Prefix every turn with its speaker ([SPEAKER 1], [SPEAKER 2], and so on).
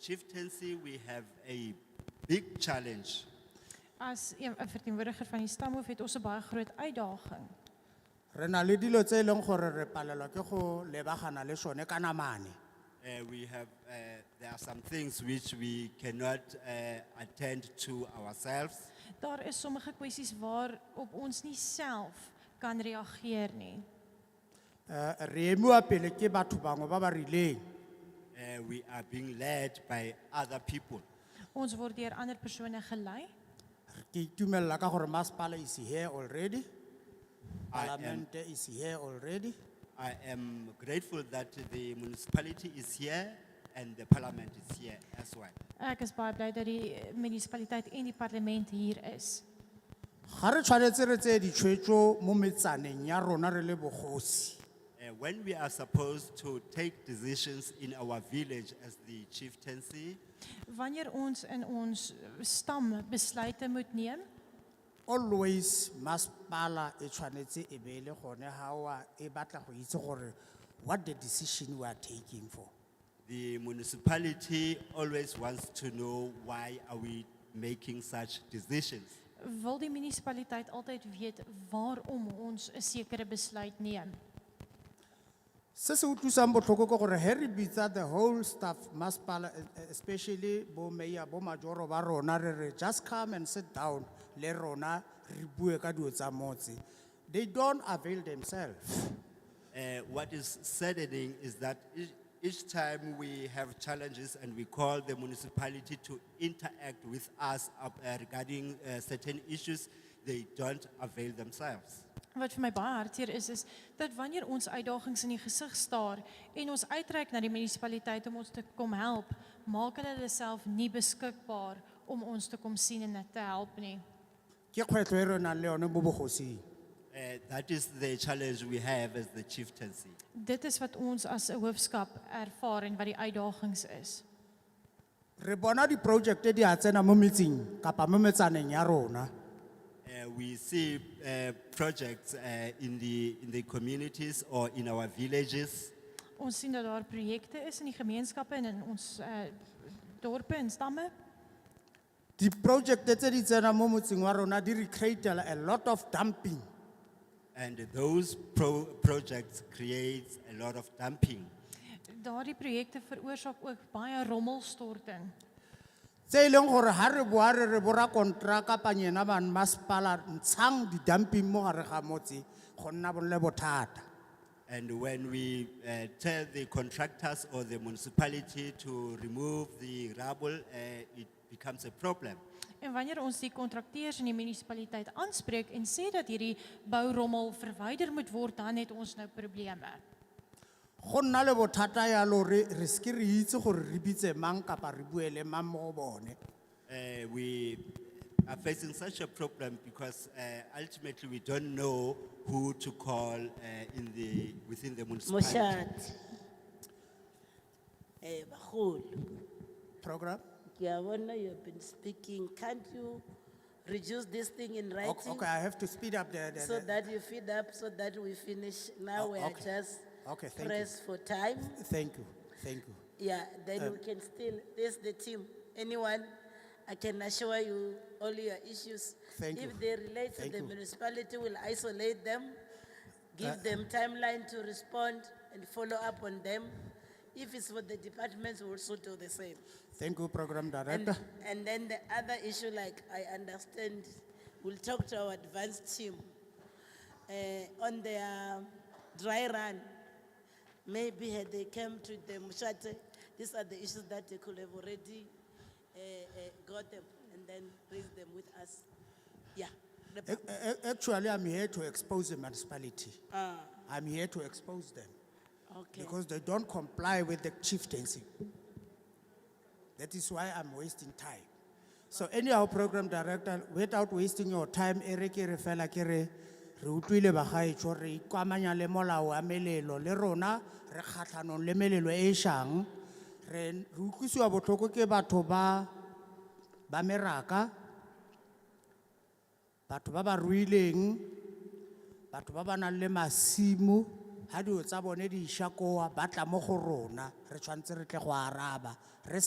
[SPEAKER 1] chieftaincy, we have a big challenge.
[SPEAKER 2] As een een verteenwoordiger van die stamhoof het ons 'n baie groot uitdaging.
[SPEAKER 3] Rena le dilo tse e leng gore re palelwa ke go lebagana le sone ka namane.
[SPEAKER 1] Uh, we have, uh, there are some things which we cannot uh, attend to ourselves.
[SPEAKER 2] Daar is sommige kwessies waarop ons nie self kan reageer nie.
[SPEAKER 3] Eh, re emiwa pele ke batho bangwe ba ba rileng.
[SPEAKER 1] Uh, we are being led by other people.
[SPEAKER 2] Ons word deur ander persone gelei.
[SPEAKER 3] Ki itumelela ka gore maspala is here already.
[SPEAKER 1] I am-
[SPEAKER 3] Parliament is here already.
[SPEAKER 1] I am grateful that the municipality is here and the parliament is here as well.
[SPEAKER 2] Ek is baie bly dat die eh, munisipaliteit en die parlement hier is.
[SPEAKER 3] Ga re tshwanetse re tseye ditshwetso mo metsaneng ya rona re le bogosi.
[SPEAKER 1] Uh, when we are supposed to take decisions in our village as the chieftaincy,
[SPEAKER 2] Wanneer ons in ons eh, stam besluite moet neem,
[SPEAKER 3] Always maspala e tshwanetse e be le gone hawa e batla go itse gore what the decision we are taking for.
[SPEAKER 1] the municipality always wants to know why are we making such decisions.
[SPEAKER 2] wil die munisipaliteit altyd weet waarom ons 'n sekere besluit neem.
[SPEAKER 3] Se se utlwisang botlhoko ke gore he re bitsa the whole staff maspala eh, eh, especially bo mayor bo majoro ba rona re re just come and sit down le rona re bue ka dilo tsa motse. They don't avail themselves.
[SPEAKER 1] Uh, what is saddening is that each, each time we have challenges and we call the municipality to interact with us up, uh, regarding uh, certain issues, they don't avail themselves.
[SPEAKER 2] Wat vir my baie hartseer is is dat wanneer ons uitdagings in die gesig staar en ons uitreik na die munisipaliteit om ons te kom help, maak hulle hulle self nie beskikbaar om ons te kom sien en te help nie.
[SPEAKER 3] Ke kgwetlho e re nang le yone mo bogosing.
[SPEAKER 1] Uh, that is the challenge we have as the chieftaincy.
[SPEAKER 2] Dit is wat ons as 'n hoofskap ervaar en wat die uitdagings is.
[SPEAKER 3] Re bona di project di a tsena mo metseng kapa mo metsaneng ya rona.
[SPEAKER 1] Uh, we see uh, projects uh, in, the, in the communities or in our villages.
[SPEAKER 2] Ons sien dat daar projekte is in die gemeenskappe en in ons uh, dorpe en stamme.
[SPEAKER 3] Di project tse di tsena mo motseng wa rona di re create a lot of dumping.
[SPEAKER 1] And those pro- projects create a lot of dumping.
[SPEAKER 2] Daardie projekte veroorsaak ook baie rommelstorting.
[SPEAKER 3] Tse e leng gore ha re boa re re bora kontraka pa nyena ban maspala ntshang di dumping mo gare ga motse go nna bonle bothata.
[SPEAKER 1] And when we uh, tell the contractors or the municipality to remove the rubble, uh, it becomes a problem.
[SPEAKER 2] En wanneer ons die kontrakteurs in die munisipaliteit aanspreek en sê dat hierdie bourommel verwyder moet word, dan het ons nou probleme.
[SPEAKER 3] Go nna le bothata yalo re re ske re itse gore re bitse mang kapa re bue le mang mo go bone.
[SPEAKER 1] Uh, we are facing such a problem because uh, ultimately we don't know who to call uh, in the, within the municipality.
[SPEAKER 4] Moshate. Eh, Baholo,
[SPEAKER 3] Program?
[SPEAKER 4] kiawana you have been speaking, can't you reduce this thing in
[SPEAKER 3] Okay,
[SPEAKER 4] writing?
[SPEAKER 3] okay, I have to speed up the the-
[SPEAKER 4] So
[SPEAKER 3] the
[SPEAKER 4] that you feed up, so that we finish, now
[SPEAKER 3] Oh,
[SPEAKER 4] we are
[SPEAKER 3] okay.
[SPEAKER 4] just
[SPEAKER 3] Okay, thank you.
[SPEAKER 4] pressed for time.
[SPEAKER 3] Thank you, thank you.
[SPEAKER 4] Yeah,
[SPEAKER 3] Uh,
[SPEAKER 4] then we can still, there's the team, anyone, I can assure you all your issues.
[SPEAKER 3] Thank you.
[SPEAKER 4] If they relate to
[SPEAKER 3] Thank
[SPEAKER 4] the
[SPEAKER 3] you. Uh,
[SPEAKER 4] municipality, we'll isolate them, give them timeline to respond and follow up on them. If it's for the departments, we'll also do the same.
[SPEAKER 3] Thank you, Program
[SPEAKER 4] And,
[SPEAKER 3] Director.
[SPEAKER 4] and then the other issue, like I understand, we'll talk to our advanced team eh, on their dry run. Maybe had they came to the Mushate, these are the issues that they could have already eh, eh, got them and then raise them with us. Yeah. The-
[SPEAKER 3] Ac- ac- Actually, I'm here to expose the municipality.
[SPEAKER 4] Ah,
[SPEAKER 3] I'm here to expose them
[SPEAKER 4] okay.
[SPEAKER 3] because they don't comply with the chieftaincy. That is why I'm wasting time. So anyhow, program director, without wasting your time, ereke re fela kere, re utlwile bagaetsho re ikwamanya le molao wa melelo le rona re kgatlhanong le melelo e e shang. Re re utlwisiwa botlhoko ke batho ba ba meraka batho ba ba ruileng batho ba ba nang le masimo ha dilo tsa bone di isha koa ba tla mo go rona re tshwanetse re tle go araba re